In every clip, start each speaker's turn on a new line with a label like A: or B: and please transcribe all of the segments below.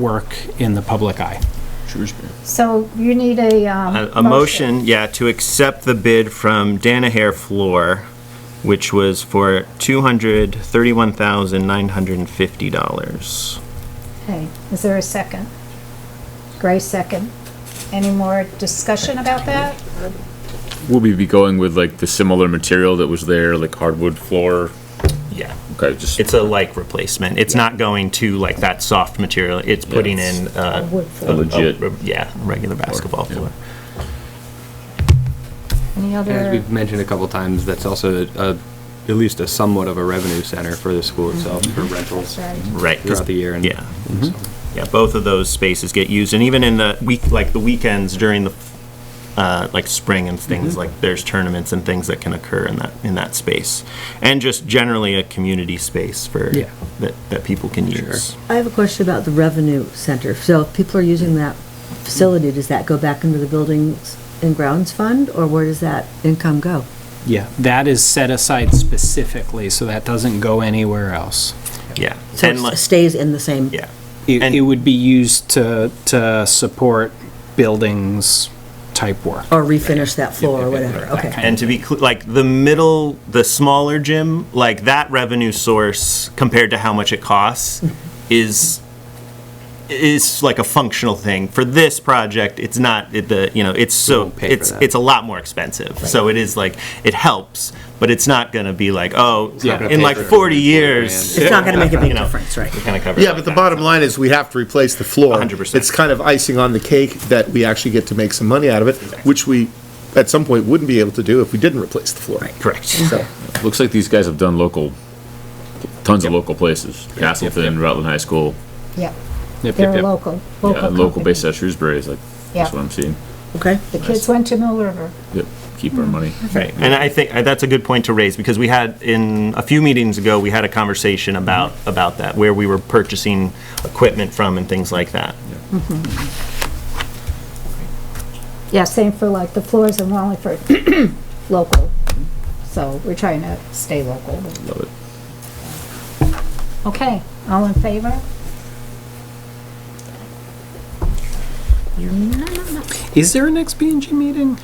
A: work in the public eye.
B: Shrewsbury.
C: So you need a, um.
D: A a motion, yeah, to accept the bid from Danaher Floor, which was for $231,950.
C: Okay, is there a second? Gray second. Any more discussion about that?
B: Will we be going with like the similar material that was there, like hardwood floor?
D: Yeah.
B: Okay, just,
D: It's a like replacement. It's not going to like that soft material. It's putting
B: it's
D: in uh,
C: wood
D: a-
C: floor.
B: A legit-
D: a- Yeah, a regular basketball
B: yeah.
D: floor.
C: Any
E: As
C: other,
E: we've mentioned a couple times, that's also a, at least a somewhat of a revenue center for the school itself, for rentals
C: sorry,
D: Right. 'cause-
E: throughout the year. and-
D: Yeah. Mm-hmm. Yeah, both of those spaces get used, and even in the week, like the weekends during the, uh, like spring and things, like there's tournaments and things that can occur in that, in that space. And just generally a community space for,
A: Yeah.
D: that, that people can use.
F: I have a question about the revenue center. So if people are using that facility, does that go back into the buildings and grounds fund, or where does that income go?
A: Yeah, that is set aside specifically, so that doesn't go anywhere else.
D: Yeah.
F: So
D: And like-
F: it stays in the same?
D: Yeah.
A: It,
D: And-
A: it would be used to, to support buildings type work.
F: Or refinish that floor or whatever, okay.
D: And to be clear, like the middle, the smaller gym, like that revenue source compared to how much it costs is, is like a functional thing. For this project, it's not, it- the, you know, it's so,
E: won't pay for
D: it's,
E: that.
D: it's a lot more expensive. So it is like, it helps, but it's not gonna be like, oh,
E: not gonna
D: in
E: pay
D: like
E: for it.
D: 40 years.
F: It's not gonna make a
D: you
F: big
D: know,
F: difference, right?
D: It kind of covers.
G: Yeah, but the bottom line is we have to replace the floor.
D: 100%.
G: It's kind of icing on the cake that we actually get to make some money out of it, which we, at some point, wouldn't be able to do if we didn't replace the floor.
D: Correct.
G: So,
B: looks like these guys have done local, tons of local places. Castleton, Rutland High School,
C: yeah,
E: Yep, yep,
C: they're
E: yep.
C: local,
B: yeah,
C: local
B: local uh,
C: company.
B: based at Shrewsbury is like, that's
C: Yeah.
B: what I'm seeing.
F: Okay.
C: The kids went to Mill River.
B: Yep, keep
C: Mm-hmm.
B: our money.
D: Right, and I think uh, that's a good point to raise, because we had, in, a few meetings ago, we had a conversation about, about that, where we were purchasing equipment from and things like that.
C: Yeah, same for like the floors in Wallingford, local. So we're trying to stay local.
B: Love it.
C: Okay, all in favor?
A: Is there an XBNG meeting?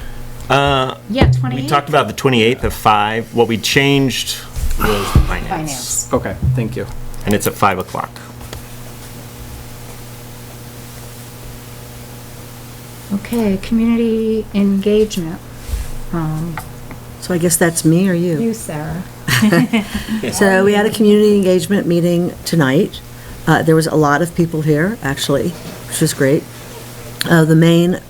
C: Yeah,
D: We
C: twenty-eight.
D: talked about the 28th at 5, what we changed was the finance,
C: Finance.
A: Okay, thank you.
D: and it's at 5 o'clock.
C: Okay, community engagement, Um,
F: So I guess that's me or
C: you, Sarah.
F: So we had a community engagement meeting tonight. Uh, There was a lot of people here, actually, which was great. Uh, The main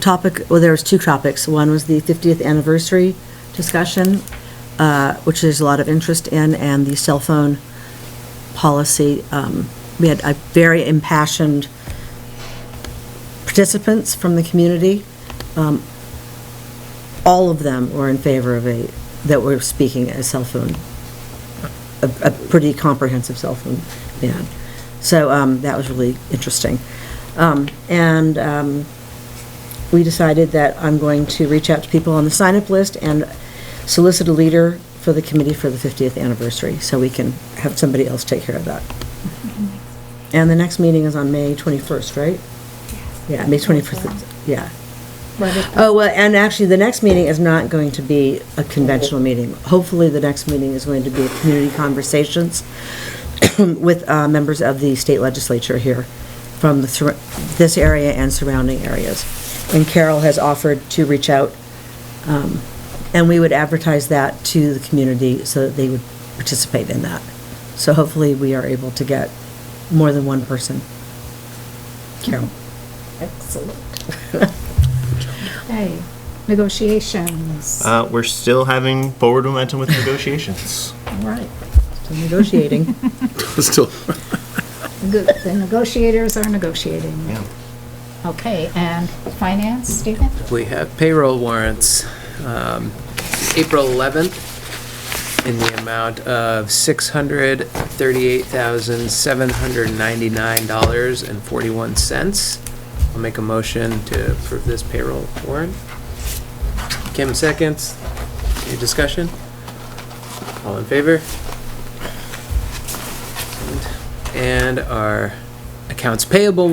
F: topic, well, there was two topics. One was the 50th anniversary discussion, uh, which there's a lot of interest in, and the cell phone policy. Um, We had a very impassioned participants from the community. Um, All of them were in favor of a, that were speaking a cell phone a, a pretty comprehensive cell phone ban. So um, that was really interesting. Um, And um, we decided that I'm going to reach out to people on the sign-up list and solicit a leader for the committee for the 50th anniversary, so we can have somebody else take care of that. And the next meeting is on May 21st, right? Yeah, May 21st, yeah.
C: What is-
F: Oh, well, and actually, the next meeting is not going to be a conventional meeting. Hopefully, the next meeting is going to be community conversations with uh, members of the state legislature here from the sur- this area and surrounding areas. And Carol has offered to reach out, um, and we would advertise that to the community so that they would participate in that. So hopefully, we are able to get more than one person. Carol?
C: Excellent. Okay, negotiations,
D: Uh, We're still having forward momentum with negotiations.
F: All right. Still negotiating.
G: still,
C: good, the negotiators are negotiating.
D: Yeah.
C: Okay, and finance, Stephen?
H: We have payroll warrants, um, April 11th, in the amount of $638,799.41. I'll make a motion to approve this payroll warrant. Kim seconds. Any discussion? All in favor? And our accounts payable